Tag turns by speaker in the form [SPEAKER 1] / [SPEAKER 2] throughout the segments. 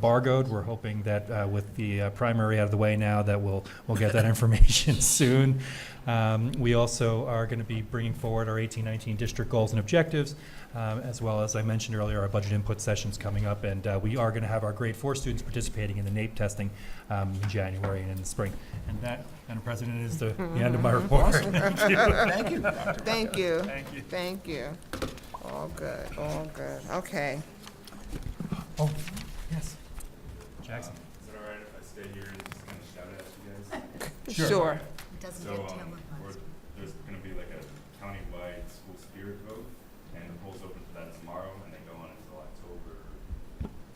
[SPEAKER 1] embargoed. We're hoping that uh, with the uh, primary out of the way now, that we'll, we'll get that information soon. Um, We also are going to be bringing forward our 1819 district goals and objectives, um, as well as, I mentioned earlier, our budget input session's coming up, and uh, we are going to have our grade four students participating in the NAEP testing um, in January and in the spring. And that, Madam President, is the the end of my report. Thank you.
[SPEAKER 2] Thank you, Dr.
[SPEAKER 3] Thank you.
[SPEAKER 1] Thank you.
[SPEAKER 3] Thank you. All good, all good. Okay.
[SPEAKER 1] Oh, yes. Jackson.
[SPEAKER 4] Is it all right if I stay here and just kind of shout at you guys?
[SPEAKER 1] Sure.
[SPEAKER 3] Sure.
[SPEAKER 4] So, um, we're, there's gonna be like a countywide school spirit vote, and the polls open for that tomorrow, and they go on until October,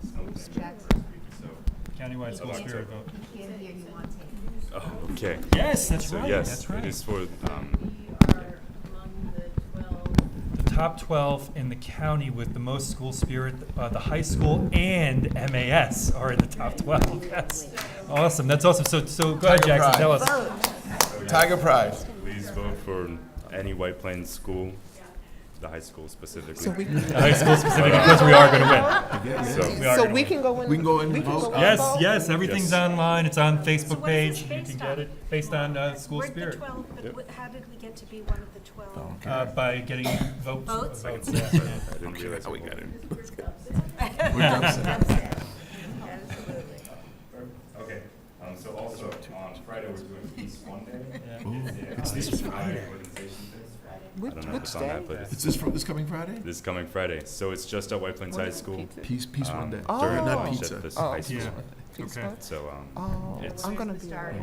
[SPEAKER 4] something, first week or so.
[SPEAKER 1] Countywide school spirit vote.
[SPEAKER 4] Oh, okay.
[SPEAKER 1] Yes, that's
[SPEAKER 4] So
[SPEAKER 1] right,
[SPEAKER 4] yes,
[SPEAKER 1] that's
[SPEAKER 4] it is
[SPEAKER 1] right.
[SPEAKER 4] for, um,
[SPEAKER 1] The top 12 in the county with the most school spirit, uh, the high school and MAS are in the top 12, yes. Awesome, that's awesome. So, so go ahead,
[SPEAKER 2] Tiger
[SPEAKER 1] Jackson,
[SPEAKER 2] pride.
[SPEAKER 1] tell us.
[SPEAKER 2] Tiger Prize.
[SPEAKER 4] please vote for any White Plains school, the high school specifically.
[SPEAKER 3] So we,
[SPEAKER 1] The High school specifically, because we are going to win.
[SPEAKER 4] So,
[SPEAKER 1] We are
[SPEAKER 3] so
[SPEAKER 1] gonna
[SPEAKER 3] we
[SPEAKER 1] win.
[SPEAKER 3] can go in.
[SPEAKER 2] We can go in and
[SPEAKER 3] can
[SPEAKER 2] vote.
[SPEAKER 3] go in
[SPEAKER 2] Uh,
[SPEAKER 3] and
[SPEAKER 1] Yes,
[SPEAKER 3] vote?
[SPEAKER 1] yes, everything's
[SPEAKER 4] Yes.
[SPEAKER 1] online, it's on Facebook
[SPEAKER 5] what is
[SPEAKER 1] page, you
[SPEAKER 5] this
[SPEAKER 1] can
[SPEAKER 5] based
[SPEAKER 1] get
[SPEAKER 5] on?
[SPEAKER 1] it, based on uh, school
[SPEAKER 5] We're the
[SPEAKER 1] spirit.
[SPEAKER 5] 12, but w- how did we get to be one of the 12?
[SPEAKER 1] Uh, By getting votes.
[SPEAKER 5] Votes?
[SPEAKER 1] Votes,
[SPEAKER 4] I
[SPEAKER 1] yeah.
[SPEAKER 4] didn't realize. we got it. Okay, um, so also, on Friday, we're doing Peace One Day. It's this Friday. I
[SPEAKER 3] Which,
[SPEAKER 4] don't know if
[SPEAKER 3] which
[SPEAKER 4] it's on
[SPEAKER 3] day?
[SPEAKER 4] that, but it's
[SPEAKER 2] Is this from this coming Friday?
[SPEAKER 4] this coming Friday. So it's just at White Plains High School.
[SPEAKER 2] Peace, peace one day.
[SPEAKER 3] Oh.
[SPEAKER 4] um, During
[SPEAKER 3] Not
[SPEAKER 4] lunch
[SPEAKER 2] pizza.
[SPEAKER 4] at this
[SPEAKER 3] Oh.
[SPEAKER 4] high school.
[SPEAKER 1] Yeah.
[SPEAKER 3] Peace
[SPEAKER 1] Okay.
[SPEAKER 3] votes?
[SPEAKER 4] So, um,
[SPEAKER 3] Oh,
[SPEAKER 4] It's-
[SPEAKER 3] I'm gonna be away. I think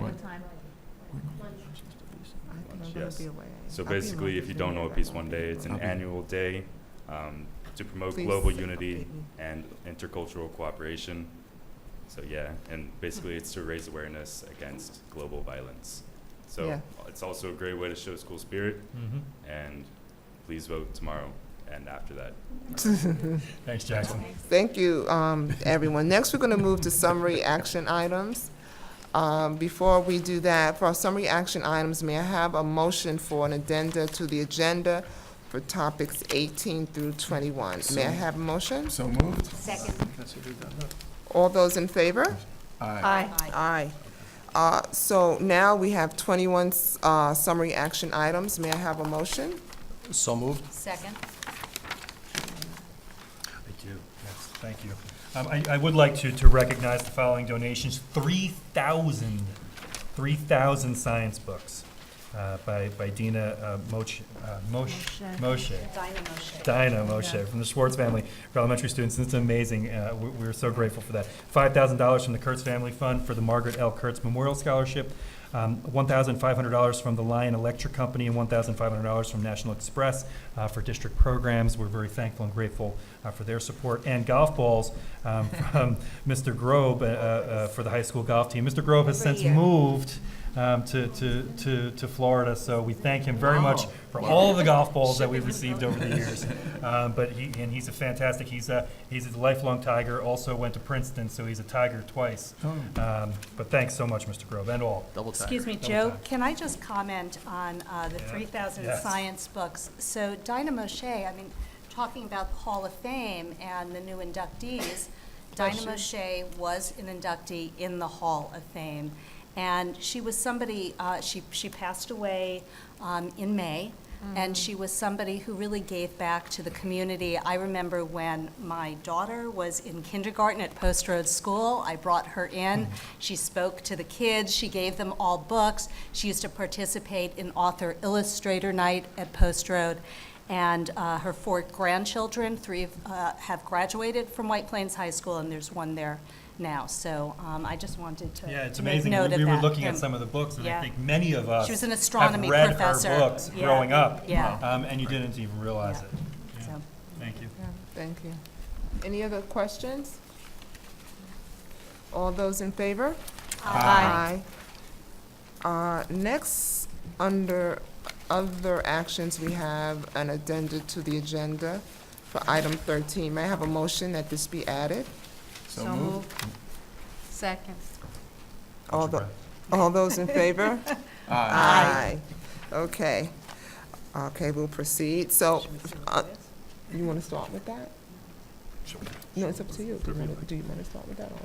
[SPEAKER 3] I'm gonna
[SPEAKER 4] yes.
[SPEAKER 3] be away.
[SPEAKER 4] so
[SPEAKER 3] I'll be in
[SPEAKER 4] basically, if you
[SPEAKER 3] London
[SPEAKER 4] don't know
[SPEAKER 3] anyway.
[SPEAKER 4] what Peace One Day, it's an
[SPEAKER 2] I'll be-
[SPEAKER 4] annual day, um, to promote
[SPEAKER 3] Please
[SPEAKER 4] global
[SPEAKER 3] say
[SPEAKER 4] unity
[SPEAKER 3] something.
[SPEAKER 4] and intercultural cooperation. So, yeah, and basically it's to raise awareness against global violence.
[SPEAKER 3] Yeah.
[SPEAKER 4] So it's also a great way to show school spirit
[SPEAKER 1] Mhm.
[SPEAKER 4] and please vote tomorrow and after that.
[SPEAKER 1] Thanks, Jackson.
[SPEAKER 3] Thank you, um, everyone. Next, we're going to move to summary action items. Um, Before we do that, for our summary action items, may I have a motion for an addenda to the agenda for topics 18 through 21? May I have a motion?
[SPEAKER 2] So moved.
[SPEAKER 5] Second.
[SPEAKER 3] All those in favor?
[SPEAKER 2] Aye.
[SPEAKER 3] Aye. Uh, So now we have 21 s- uh, summary action items. May I have a motion?
[SPEAKER 6] So moved.
[SPEAKER 5] Second.
[SPEAKER 1] Thank you. Yes, thank you. Um, I, I would like to, to recognize the following donations, 3,000, 3,000 science books uh, by, by Dina uh, Moch, uh, Mosh, Moshe,
[SPEAKER 5] Dynamo shape.
[SPEAKER 1] Dinah Moshe from the Schwartz family for elementary students. It's amazing. Uh, we- We're so grateful for that. $5,000 from the Kurtz Family Fund for the Margaret L. Kurtz Memorial Scholarship, um, $1,500 from the Lion Electric Company, and $1,500 from National Express uh, for district programs. We're very thankful and grateful uh, for their support. And golf balls um, from Mr. Grobe uh, uh, for the high school golf team. Mr. Grobe has since moved um, to to to to Florida, so we thank him very much for all of the golf balls that we've received over the years. Um, But he, and he's a fantastic, he's a, he's a lifelong Tiger, also went to Princeton, so he's a Tiger twice. Um, But thanks so much, Mr. Grove, and all.
[SPEAKER 6] Double time.
[SPEAKER 5] Excuse me, Joe, can I just comment on uh, the 3,000
[SPEAKER 1] Yes.
[SPEAKER 5] science books? So Dinah Moshe, I mean, talking about the Hall of Fame and the new inductees, Dinah Moshe was an inductee in the Hall of Fame. And she was somebody, uh, she, she passed away um, in May, and she was somebody who really gave back to the community. I remember when my daughter was in kindergarten at Post Road School, I brought her in. She spoke to the kids, she gave them all books. She used to participate in author illustrator night at Post Road. And uh, her four grandchildren, three of, uh, have graduated from White Plains High School, and there's one there now. So um, I just wanted to
[SPEAKER 1] Yeah, it's
[SPEAKER 5] make
[SPEAKER 1] amazing.
[SPEAKER 5] note
[SPEAKER 1] We
[SPEAKER 5] of
[SPEAKER 1] were
[SPEAKER 5] that.
[SPEAKER 1] looking at
[SPEAKER 5] And-
[SPEAKER 1] some of the books, and I
[SPEAKER 5] Yeah.
[SPEAKER 1] think many of us
[SPEAKER 5] She was an astronomy professor.
[SPEAKER 1] have read her books
[SPEAKER 5] Yeah.
[SPEAKER 1] growing up.
[SPEAKER 5] Yeah.
[SPEAKER 1] um, And you didn't even realize it. Yeah.
[SPEAKER 5] So-
[SPEAKER 1] Thank you.
[SPEAKER 3] Thank you. Any other questions? All those in favor? Aye. Uh, Next, under other actions, we have an addenda to the agenda for item 13. May I have a motion that this be added?
[SPEAKER 2] So moved.
[SPEAKER 7] Second.
[SPEAKER 3] All tho- all those in favor? Aye.
[SPEAKER 2] Aye.
[SPEAKER 3] Okay. Okay, we'll proceed. So, uh, you want to start with that? No, it's up to you. Do you want to start with that or?